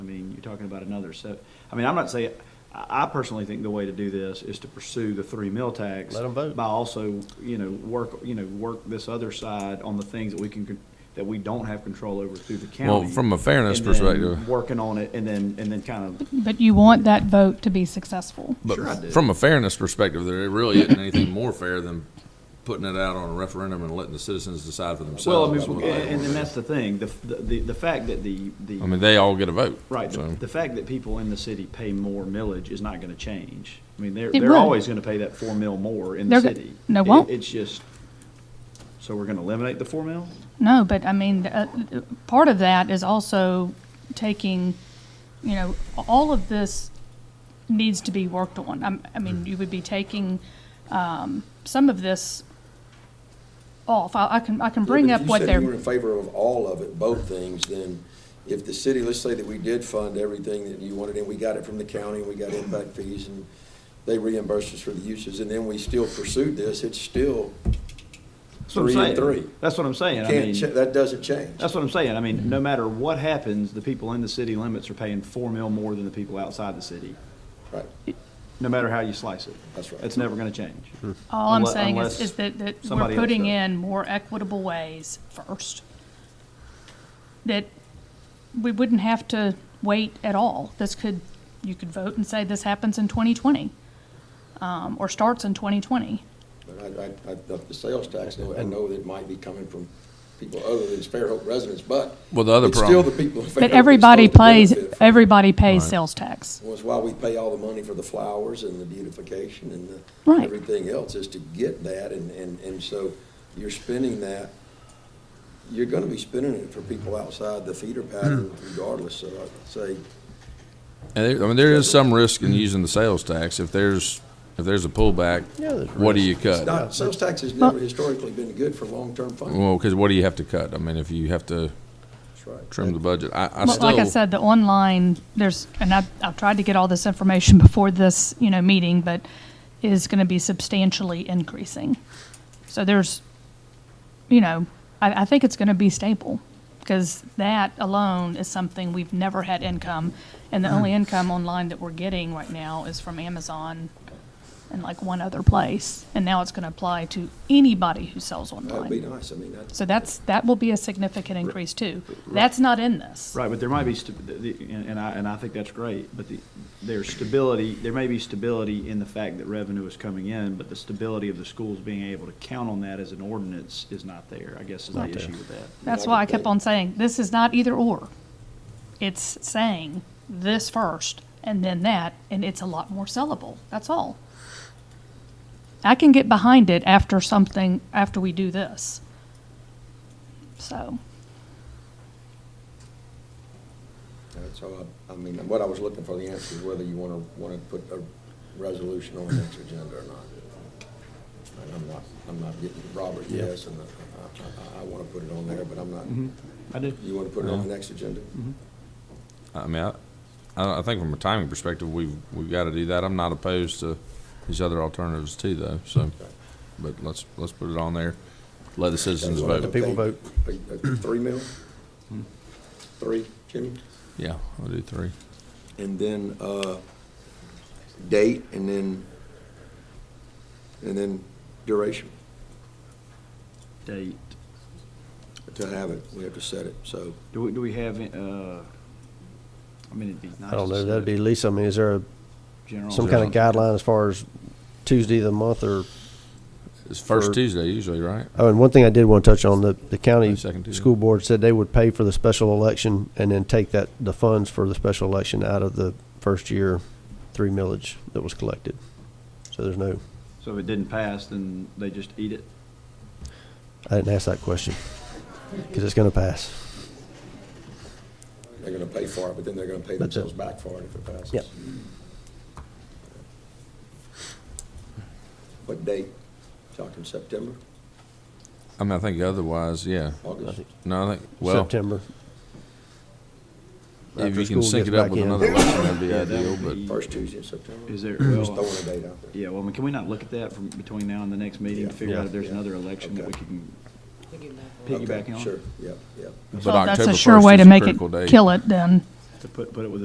be talking about another, so, I mean, I'm not saying, I, I personally think the way to do this is to pursue the three mill tax. Let 'em vote. By also, you know, work, you know, work this other side on the things that we can, con- that we don't have control over through the county. Well, from a fairness and then perspective- Working on it, and then, and then kind of, But you want that vote to be successful. But Sure I do. from a fairness perspective, there really isn't anything more fair than putting it out on a referendum and letting the citizens decide for well, I themselves. mean, what they and, and want. that's the thing, the, the, the fact that the, the. I mean, they all get a vote. Right, the, so. the fact that people in the city pay more millage is not gonna change. I mean, they're, It they're will. always gonna pay that four mil more in the They're go- city. no, It- won't. It's just, so we're gonna eliminate the four mil? No, but I mean, uh, uh, part of that is also taking, you know, all of this needs to be worked on. I'm- I mean, you would be taking um, some of this off. I I can, I can bring Yeah, up but what If you they're. said you were in favor of all of it, both things, then if the city, let's say that we did fund everything that you wanted, and we got it from the county, and we got impact fees, and they reimbursed us for the uses, and then we still pursued this, it's still, That's what I'm Three and saying. three. That's what I'm saying, I can't, cha- mean, that doesn't change. that's what I'm saying, I mean, no matter what happens, the people in the city limits are paying four mil more than the people outside the city, Right, no matter how you slice it. That's right. It's never gonna change. All I'm Unle- saying unless is, is that, that somebody we're else putting does. in more equitable ways first. That we wouldn't have to wait at all. This could, you could vote and say this happens in twenty twenty, um, or starts in twenty twenty. but I, I, I, the sales tax, though, I know that might be coming from people other than Fairhope residents, but. Well, the other It's still the problem- people in Fairhope. But that's everybody supposed to plays, benefit from it. everybody pays sales tax. was why we pay all the money for the flowers and the beautification and Right. the, everything else is to get that, and, and, and so you're spending that. You're gonna be spending it for people outside the feeder pattern regardless, so I'd say, And there, I mean, there is some risk in using the sales tax. If there's, if there's a pullback, Yeah, there's what do risk. you it's cut? not, sales tax has never historically been good for long-term funding, Well, because what do you have to cut? I mean, if you have to that's right. trim the budget, I, I Well, Like I still, said, the online, there's, and I, I've tried to get all this information before this, you know, meeting, but is gonna be substantially increasing. So there's, you know, I, I think it's gonna be stable, because that alone is something we've never had income. And the Mm-hmm. only income online that we're getting right now is from Amazon and like one other place. And now it's gonna apply to anybody who sells That'd be online. nice, I mean, that's. So that's, that will be a significant increase too. That's not in this. Right, but there might be, sta- the- the- and and I, and I think that's great, but the, there's stability, there may be stability in the fact that revenue is coming in, but the stability of the schools being able to count on that as an ordinance is not there, I guess is the Not there. issue with that. That's I why I could kept think. on saying, this is not either or. It's saying this first and then that, and it's a lot more sellable. That's all. I can get behind it after something, after we do this. So, That's all, uh, I I mean, what I was looking for the answer is whether you want to, want to put a resolution on the next agenda or not. And I'm not, I'm not getting Robert, yes, and uh, I- I, I, I want to put it on there, but I'm not, Mm-hmm. I do. you want to put it on the next agenda? I mean, I, I I think from a timing perspective, we've, we've got to do that. I'm not opposed to these other alternatives too, though, so. But let's, let's put it on there. Let the citizens The vote. people vote. Mm-hmm. A- a Three mil? Three, Jimmy? Yeah, I'll do three. And then, uh, date, and then, and then duration. Date, To have it, we have to set it, so. do we, do we have, uh, I mean, it'd be nice. I don't to know, set that'd be, Lisa, I mean, is there a- general- some kind of guideline as far as Tuesday of the month or, It's first For- Tuesday usually, right? oh, and one thing I did want to touch on, the, the county Second Tuesday. school board said they would pay for the special election and then take that, the funds for the special election out of the first year three millage that was collected. So there's no, So if it didn't pass, then they just eat it? I didn't ask that question, because it's going to pass. They're gonna pay for it, but then they're gonna pay That's it. themselves back for it if it passes. Yep. What date? Talking September, I mean, I think otherwise, yeah. August? No, I think, well, September. if After you can school sync gets it up back with in. another election, that'd be Yeah, that ideal, would but. be- First Tuesday in September? Is there, Just well, throwing a date out there. yeah, well, I mean, can we not look at that from between now and the next meeting to Yeah. figure out Yeah. if there's Yeah. another election that we Okay. can Okay, piggyback on? Sure, yep, yep. but well, that's October a sure 1st way is to a make it critical date. kill it then. To put, put it with